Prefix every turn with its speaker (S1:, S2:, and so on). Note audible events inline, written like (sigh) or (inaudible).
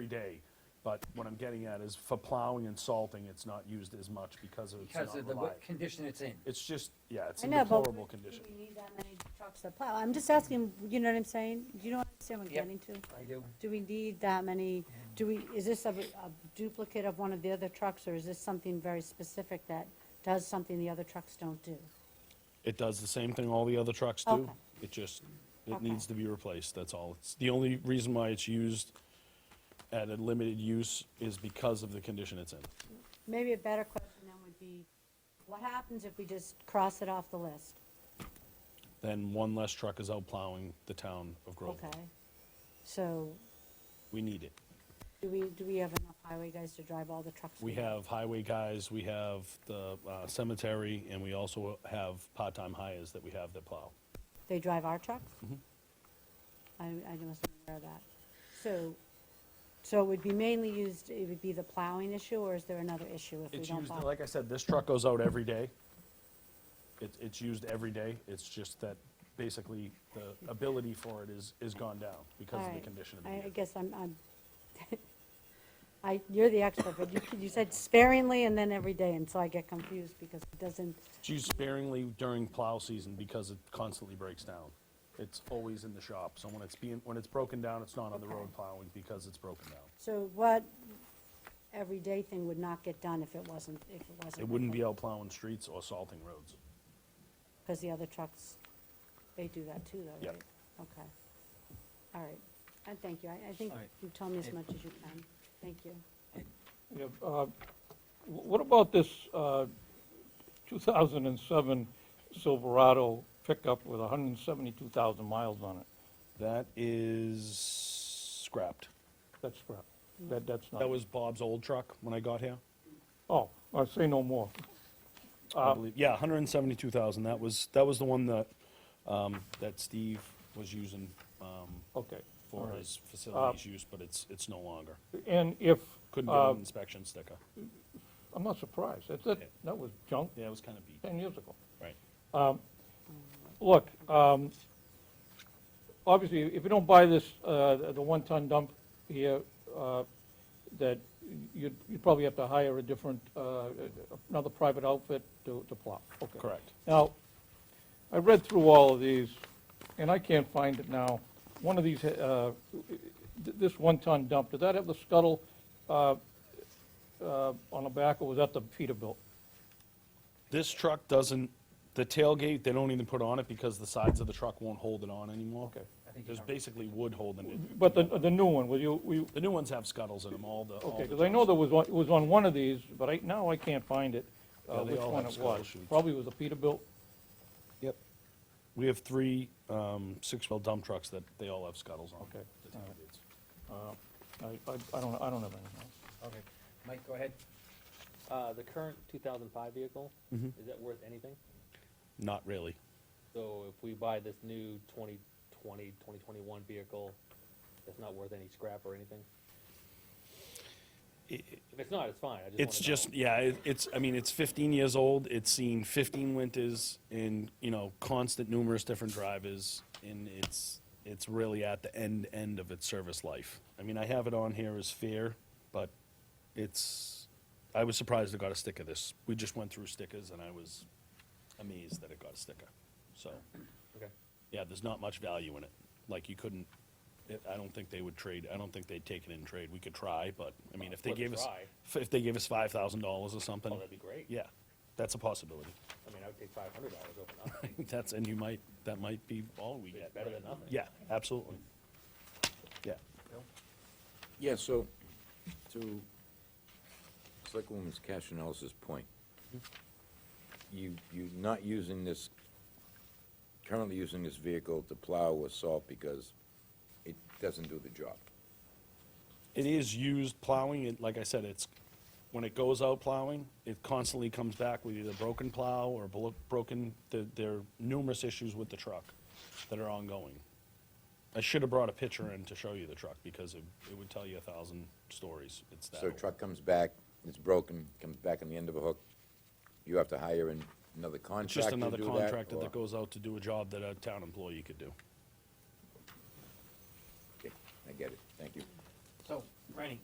S1: day. But what I'm getting at is for plowing and salting, it's not used as much because it's
S2: because
S1: not
S2: of the
S1: reliable.
S2: wet condition it's in.
S1: It's just, yeah, it's
S3: I
S1: in
S3: know, but
S1: deplorable
S3: do
S1: condition.
S3: we need that many trucks to plow? I'm just asking, you know what I'm saying? Do you know what I'm saying, what I'm
S2: Yep.
S3: getting to?
S2: I do.
S3: Do we need that many, do we, is this a a duplicate of one of the other trucks, or is this something very specific that does something the other trucks don't do?
S1: It does the same thing all the other trucks do.
S3: Okay.
S1: It just,
S3: Okay.
S1: it needs to be replaced, that's all. It's the only reason why it's used at a limited use is because of the condition it's in.
S3: Maybe a better question then would be, what happens if we just cross it off the list?
S1: Then one less truck is out plowing the town of Groveland.
S3: Okay? So,
S1: We need it.
S3: do we, do we have enough highway guys to drive all the trucks?
S1: We have highway guys, we have the uh, cemetery, and we also have part-time hires that we have that plow.
S3: They drive our trucks?
S1: Mm-hmm.
S3: I, I wasn't aware of that. So, so it would be mainly used, it would be the plowing issue, or is there another issue if we
S1: It's
S3: don't
S1: used,
S3: plow?
S1: like I said, this truck goes out every day. It, it's used every day, it's just that basically the ability for it is, is gone down because of the
S3: Alright.
S1: condition of the
S3: I, I
S1: vehicle.
S3: guess I'm, I'm, (laughs) I, you're the expert, but you, you said sparingly and then every day, and so I get confused because it doesn't,
S1: It's used sparingly during plow season because it constantly breaks down. It's always in the shop, so when it's being, when it's broken down, it's not on the road
S3: Okay.
S1: plowing because it's broken down.
S3: so what everyday thing would not get done if it wasn't, if it wasn't?
S1: It wouldn't be out plowing streets or salting roads.
S3: Because the other trucks, they do that too, though,
S1: Yep.
S3: right? Okay. All right, and thank you, I, I think
S4: All right.
S3: you told me as
S2: Hey.
S3: much as you can, thank you.
S4: Yeah, uh, wh- What about this uh, 2007 Silverado pickup with 172,000 miles on it?
S1: That is scrapped.
S4: That's crap. That, that's not.
S1: That was Bob's old truck when I got here.
S4: Oh, I say no more.
S1: I believe, Uh, yeah, hundred and seventy-two thousand, that was, that was the one that, um, that Steve was using, um,
S4: Okay. all
S1: for
S4: right. Uh,
S1: his facilities use, but it's, it's no longer.
S4: And if,
S1: Couldn't get
S4: uh,
S1: an inspection sticker.
S4: I'm not surprised. That's, that, that was junk
S1: Yeah, it was kinda beat,
S4: 10 years ago.
S1: right.
S4: Look, um, obviously, if you don't buy this, uh, the one-ton dump here, uh, that you'd, you'd probably have to hire a different, uh, another private outfit to, to plow. Okay.
S1: Correct.
S4: Now, I read through all of these, and I can't find it now. One of these, uh, th- this one-ton dump, did that have the scuttle uh, uh, on the back, or was that the Peterbilt?
S1: This truck doesn't, the tailgate, they don't even put on it because the sides of the truck won't hold it on anymore.
S4: Okay.
S2: I think
S1: There's
S2: you're right.
S1: basically wood holding it.
S4: But the, the new one, were you, were you,
S1: The new ones have scuttles in them, all the, all
S4: Okay,
S1: the
S4: because I know there was one, it was on one of these, but I, now I can't find it, uh,
S1: Yeah, they
S4: which
S1: all
S4: one
S1: have
S4: it was.
S1: scholarships.
S4: Probably was a Peterbilt.
S1: Yep. We have three, um, six-wheel dump trucks that they all have scuttles on.
S4: Okay,
S1: the
S4: all right.
S1: tailgates.
S4: I, I, I don't, I don't have anything. else.
S2: Okay, Mike, go ahead.
S5: Uh, the current two thousand five vehicle,
S1: Mm-hmm.
S5: is that worth anything?
S1: Not really.
S5: So if we buy this new 2020, 2021 vehicle, that's not worth any scrap or anything? If it's not, it's fine, I just wanna
S1: It's just,
S5: know.
S1: yeah, it- it's, I mean, it's 15 years old, it's seen 15 winters in, you know, constant numerous different drivers, and it's, it's really at the end, end of its service life. I mean, I have it on here as fair, but it's, I was surprised it got a sticker this. We just went through stickers, and I was amazed that it got a sticker. So,
S5: Okay,
S1: yeah, there's not much value in it. Like, you couldn't, it- I don't think they would trade, I don't think they'd take it in trade. We could try, but, I mean, if they
S5: Worth a
S1: gave us,
S5: try.
S1: if- if they gave us five thousand dollars or something,
S5: oh, that'd be great.
S1: yeah, that's a possibility. (laughs)
S5: I mean, I would take five hundred dollars over nothing,
S1: That's, and you might, that might be all we
S5: it's
S1: get.
S5: better than nothing.
S1: Yeah, absolutely. Yeah.
S6: Yeah, so, to Selectwoman's Cashinellis's point, you, you're not using this, currently using this vehicle to plow or salt because it doesn't do the job.
S1: It is used plowing, and like I said, it's, when it goes out plowing, it constantly comes back with either broken plow or blo- broken, there, there are numerous issues with the truck that are ongoing. I should have brought a picture in to show you the truck, because it, it would tell you a thousand stories, it's that
S6: So
S1: old.
S6: truck comes back, it's broken, comes back on the end of a hook, you have to hire an- another
S1: It's just
S6: contractor to do that?
S1: another contractor
S6: or-
S1: that goes out to do a job that a town employee could do.
S6: Okay, I get it, thank you.
S2: So, Rennie,